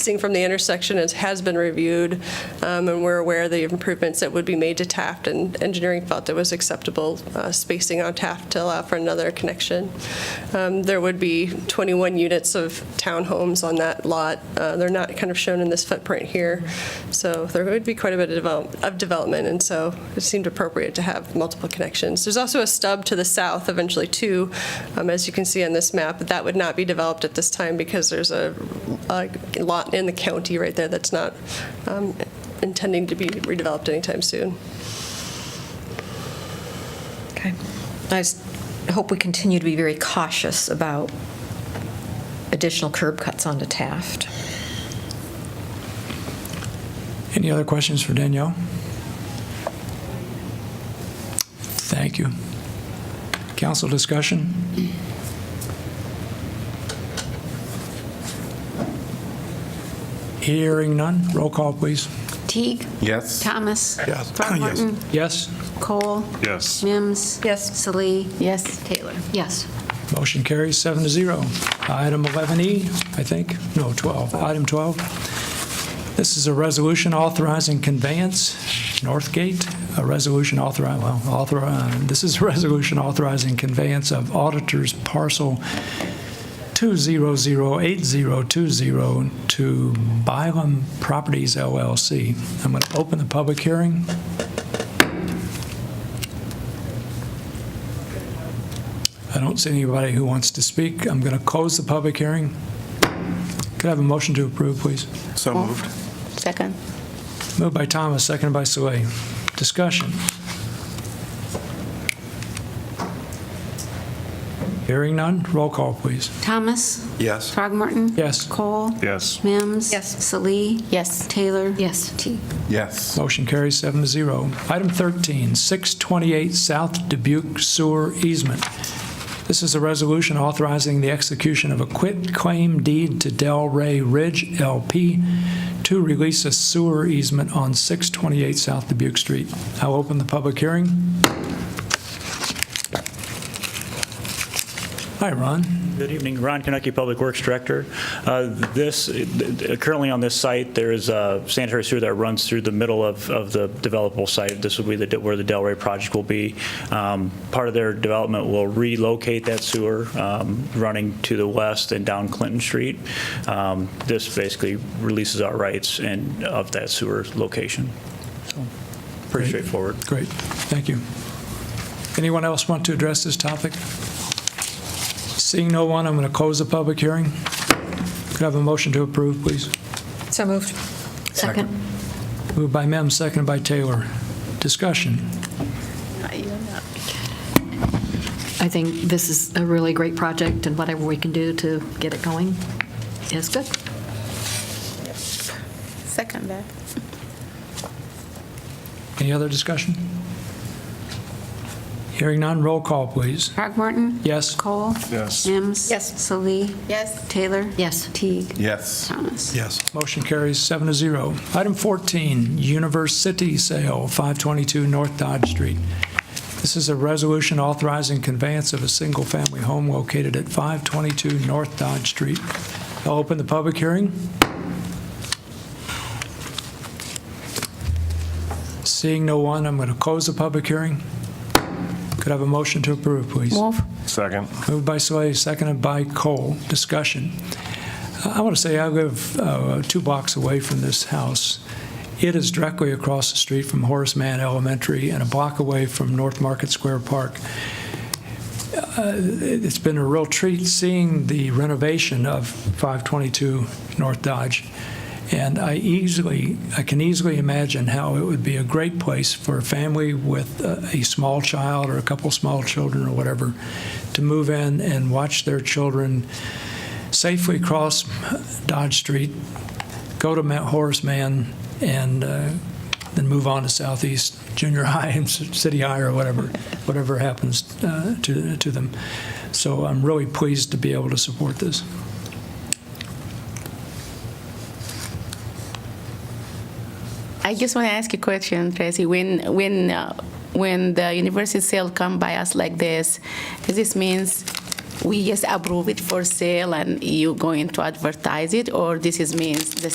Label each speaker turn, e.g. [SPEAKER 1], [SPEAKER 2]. [SPEAKER 1] Seeing from the intersection is, has been reviewed, um, and we're aware of the improvements that would be made to Taft, and engineering felt it was acceptable uh, spacing on Taft to allow for another connection. Um, There would be 21 units of townhomes on that lot. Uh, They're not kind of shown in this footprint here, so there would be quite a bit of develop- of development, and so it seemed appropriate to have multiple connections. There's also a stub to the south, eventually two, um, as you can see on this map, but that would not be developed at this time because there's a a lot in the county right there that's not um, intending to be redeveloped anytime soon.
[SPEAKER 2] Okay. I just hope we continue to be very cautious about additional curb cuts onto Taft.
[SPEAKER 3] Any other questions for Danielle? Thank you. Council discussion? Hearing none. Roll call, please.
[SPEAKER 4] Teague?
[SPEAKER 5] Yes.
[SPEAKER 4] Thomas?
[SPEAKER 5] Yes. Oh,
[SPEAKER 4] Throckmorton?
[SPEAKER 3] Yes.
[SPEAKER 4] Cole?
[SPEAKER 5] Yes.
[SPEAKER 4] Mims?
[SPEAKER 2] Yes.
[SPEAKER 4] Salee?
[SPEAKER 6] Yes.
[SPEAKER 4] Taylor? Yes.
[SPEAKER 3] Motion carries seven to zero. Item 11E, I think, no, 12, item 12. This is a resolution authorizing conveyance, Northgate, a resolution authori, well, author, uh, this is a resolution authorizing conveyance of auditor's parcel 2008020 to Bylam Properties LLC. I'm going to open the public hearing. I don't see anybody who wants to speak. I'm going to close the public hearing. Could I have a motion to approve, please?
[SPEAKER 5] So moved.
[SPEAKER 6] Second?
[SPEAKER 3] Moved by Thomas, seconded by Sway. Discussion. Hearing none, roll call, please.
[SPEAKER 4] Thomas?
[SPEAKER 5] Yes.
[SPEAKER 4] Throgmorton?
[SPEAKER 3] Yes.
[SPEAKER 4] Cole?
[SPEAKER 5] Yes.
[SPEAKER 4] Mims?
[SPEAKER 2] Yes.
[SPEAKER 4] Salee?
[SPEAKER 6] Yes.
[SPEAKER 4] Taylor? Yes. Teague?
[SPEAKER 5] Yes.
[SPEAKER 3] Motion carries seven to zero. Item 13, 628 South Dubuque Sewer Easement. This is a resolution authorizing the execution of a quit-claim deed to Delray Ridge LP to release a sewer easement on 628 South Dubuque Street. I'll open the public hearing. Hi, Ron.
[SPEAKER 7] Good evening, Ron Konecki, Public Works Director. Uh, This, currently on this site, there is a sanitary sewer that runs through the middle of of the developable site. This will be the where the Delray project will be. Um, Part of their development will relocate that sewer um, running to the west and down Clinton Street. Um, This basically releases our rights and of that sewer location. So, Pretty straightforward.
[SPEAKER 3] Great, thank you. Anyone else want to address this topic? Seeing no one, I'm going to close the public hearing. Could I have a motion to approve, please?
[SPEAKER 2] So moved.
[SPEAKER 5] Second.
[SPEAKER 3] Moved by Mem, seconded by Taylor. Discussion.
[SPEAKER 6] I think this is a really great project, and whatever we can do to get it going is good.
[SPEAKER 8] Second that.
[SPEAKER 3] Any other discussion? Hearing none, roll call, please.
[SPEAKER 4] Throgmorton?
[SPEAKER 3] Yes.
[SPEAKER 4] Cole?
[SPEAKER 5] Yes.
[SPEAKER 4] Mims?
[SPEAKER 8] Yes.
[SPEAKER 4] Salee?
[SPEAKER 8] Yes.
[SPEAKER 4] Taylor?
[SPEAKER 6] Yes.
[SPEAKER 4] Teague?
[SPEAKER 5] Yes.
[SPEAKER 4] Thomas?
[SPEAKER 3] Yes. Motion carries seven to zero. Item 14, University Sale, 522 North Dodge Street. This is a resolution authorizing conveyance of a single-family home located at 522 North Dodge Street. I'll open the public hearing. Seeing no one, I'm going to close the public hearing. Could I have a motion to approve, please?
[SPEAKER 6] Wolf?
[SPEAKER 5] Second.
[SPEAKER 3] Moved by Slay, seconded by Cole. Discussion. I want to say I live uh, two blocks away from this house. It is directly across the street from Horace Mann Elementary and a block away from North Market Square Park. Uh, It's been a real treat seeing the renovation of 522 North Dodge. And I easily, I can easily imagine how it would be a great place for a family with uh, a small child or a couple small children or whatever to move in and watch their children safely cross Dodge Street, go to Mount Horace Man, and uh, then move on to Southeast Junior High and C- City High or whatever, whatever happens uh, to to them. So I'm really pleased to be able to support this.
[SPEAKER 8] I just want to ask you a question, Tracy. When when uh, when the university sale come by us like this, does this means we just approve it for sale and you going to advertise it, or this is means the